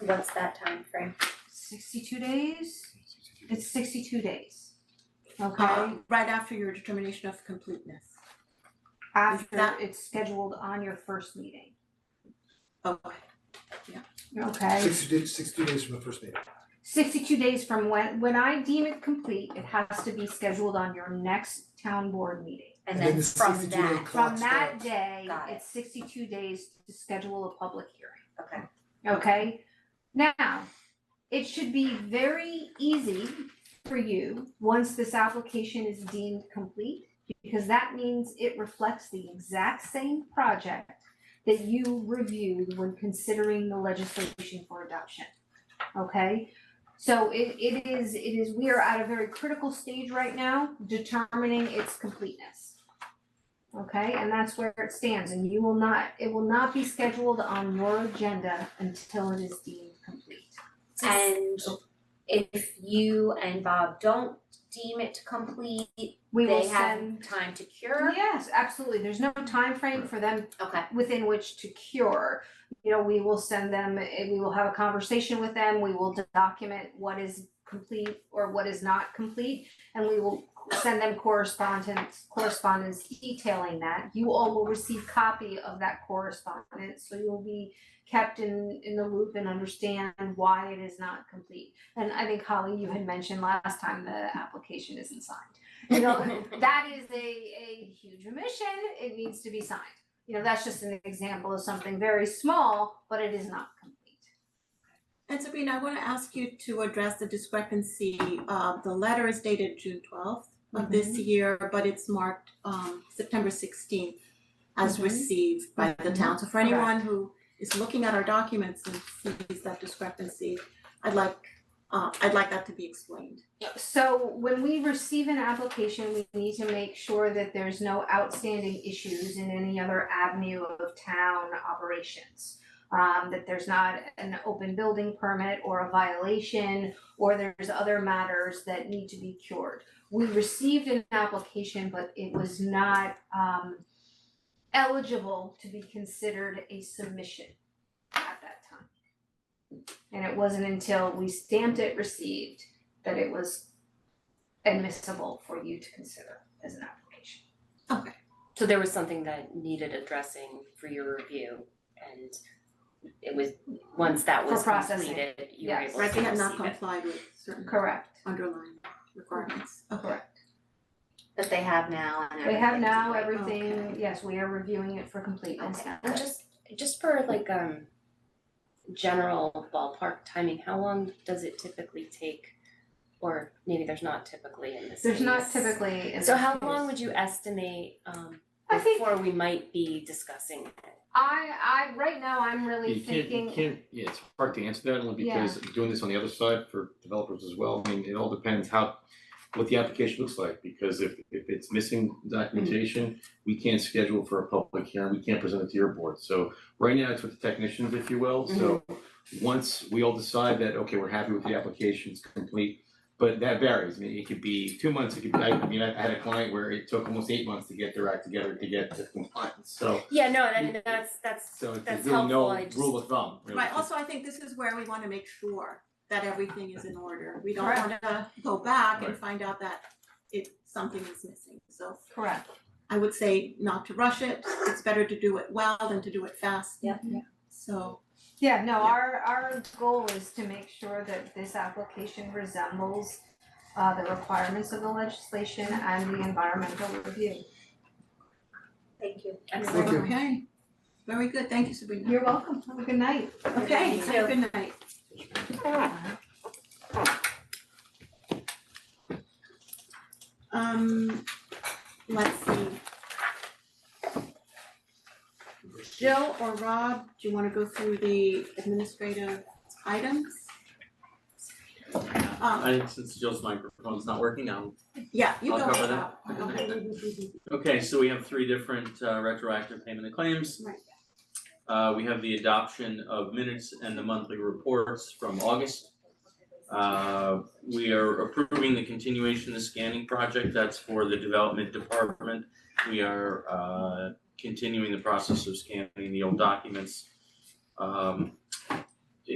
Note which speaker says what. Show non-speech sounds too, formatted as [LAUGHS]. Speaker 1: what's that time frame?
Speaker 2: Sixty-two days? It's sixty-two days. Okay,
Speaker 3: Um, right after your determination of completeness.
Speaker 2: after
Speaker 3: that-
Speaker 2: it's scheduled on your first meeting,
Speaker 3: Okay,
Speaker 2: okay?
Speaker 4: Sixty days, sixty days from the first meeting.
Speaker 2: Sixty-two days from when, when I deem it complete, it has to be scheduled on your next town board meeting.
Speaker 1: And
Speaker 4: And then
Speaker 1: then
Speaker 4: the
Speaker 1: from
Speaker 4: 62 day
Speaker 1: that,
Speaker 2: From
Speaker 4: Clock
Speaker 2: that
Speaker 4: starts.
Speaker 2: day,
Speaker 1: Got it.
Speaker 2: it's sixty-two days to schedule a public hearing.
Speaker 1: okay,
Speaker 2: okay? Now, it should be very easy for you, once this application is deemed complete, because that means it reflects the exact same project that you reviewed when considering the legislation for adoption, okay? So it it is, it is, we are at a very critical stage right now, determining its completeness. Okay, and that's where it stands, and you will not, it will not be scheduled on your agenda until it is deemed complete.
Speaker 1: and if you and Bob don't deem it complete,
Speaker 2: We will
Speaker 1: they have
Speaker 2: send.
Speaker 1: time to cure,
Speaker 2: Yes, absolutely, there's no time frame for them
Speaker 1: okay,
Speaker 2: within which to cure. You know, we will send them, eh, we will have a conversation with them, we will document what is complete or what is not complete. And we will send them correspondence, correspondence detailing that. You all will receive copy of that correspondence, so you'll be kept in in the loop and understand why it is not complete. And I think Holly, you had mentioned last time the application isn't signed. You
Speaker 1: [LAUGHS]
Speaker 2: know, [LAUGHS] that is a a huge omission, it needs to be signed you know, that's just an example of something very small, but it is not complete.
Speaker 3: and Sabrina, I wanna ask you to address the discrepancy, uh, the letter is dated June twelfth of this
Speaker 2: Mm-hmm.
Speaker 3: year, but it's marked, um, September sixteenth as
Speaker 1: Mhm.
Speaker 3: received by the town, so for
Speaker 2: Mm-hmm. Correct.
Speaker 3: anyone who is looking at our documents and sees that discrepancy, I'd like, uh, I'd like that to be explained.
Speaker 2: So when we receive an application, we need to make sure that there's no outstanding issues in any other avenue of town operations. Um, that there's not an open building permit or a violation, or there's other matters that need to be cured. We received an application, but it was not, um, eligible to be considered a submission at that time. And it wasn't until we stamped it received that it was admissible for you to consider as an application.
Speaker 5: So there was something that needed addressing for your review and it was, once that
Speaker 2: For
Speaker 5: was
Speaker 2: processing,
Speaker 5: completed, you were
Speaker 2: yes.
Speaker 5: able to
Speaker 3: Right,
Speaker 5: receive
Speaker 3: they
Speaker 5: it.
Speaker 3: have not complied with certain
Speaker 2: Correct.
Speaker 3: underlying requirements, okay,
Speaker 2: Correct.
Speaker 1: but they have now and
Speaker 2: We have
Speaker 1: everything's
Speaker 2: now
Speaker 1: great.
Speaker 2: everything, yes, we are reviewing it for completeness
Speaker 5: Okay,
Speaker 2: now.
Speaker 5: and just, just for like, um, general ballpark timing, how long does it typically take? Or maybe there's not typically in this
Speaker 2: There's not
Speaker 5: case.
Speaker 2: typically.
Speaker 5: So how long would you estimate, um,
Speaker 2: I think-
Speaker 5: before we might be discussing it?
Speaker 2: I I right now I'm really
Speaker 6: You can't, you
Speaker 2: thinking,
Speaker 6: can't, yeah, it's hard to answer that only
Speaker 2: Yeah.
Speaker 6: because doing this on the other side for developers as well, I mean, it all depends how, what the application looks like, because if, if it's missing documentation, we can't schedule for a public hearing, we can't present it to your board, so right now it's with the technicians, if you will, so
Speaker 2: Mm-hmm.
Speaker 6: once we all decide that, okay, we're happy with the application, it's complete, but that varies, I mean, it could be two months, it could be, I I mean, I had a client where it took almost eight months to get their act together to get to compliance, so,
Speaker 5: Yeah, no,
Speaker 6: You-
Speaker 5: that, that's, that's,
Speaker 6: so there's
Speaker 5: that's
Speaker 6: really
Speaker 5: helpful,
Speaker 6: no
Speaker 5: I just.
Speaker 6: rule of thumb, really.
Speaker 3: right, also, I think this is where we wanna make sure that everything is in order, we don't
Speaker 2: Correct.
Speaker 3: wanna go back and
Speaker 6: Right.
Speaker 3: find out that it, something is missing, so
Speaker 2: correct,
Speaker 3: I would say not to rush it, it's better to do it well than to do it fast.
Speaker 1: Yep.
Speaker 2: Yeah.
Speaker 3: So,
Speaker 2: yeah, no, our our goal is to make sure that this application resembles uh the requirements of the legislation and the environmental review.
Speaker 1: Thank you.
Speaker 5: Excellent.
Speaker 4: Thank you.
Speaker 3: okay, very good, thank you Sabrina.
Speaker 2: You're welcome, have a good night.
Speaker 3: Okay,
Speaker 1: You
Speaker 3: have a good night. Um, let's see. Jill or Rob, do you wanna go through the administrative items? Um,
Speaker 7: I, since Jill's microphone's not working now.
Speaker 3: yeah, you go.
Speaker 7: I'll cover
Speaker 3: Rob.
Speaker 7: Okay, so we have three different uh, retroactive payment of claims.
Speaker 3: Right.
Speaker 7: Uh, we have the adoption of minutes and the monthly reports from August. Uh, we are approving the continuation of the scanning project, that's for the development department. We are uh continuing the process of scanning the old documents. Um,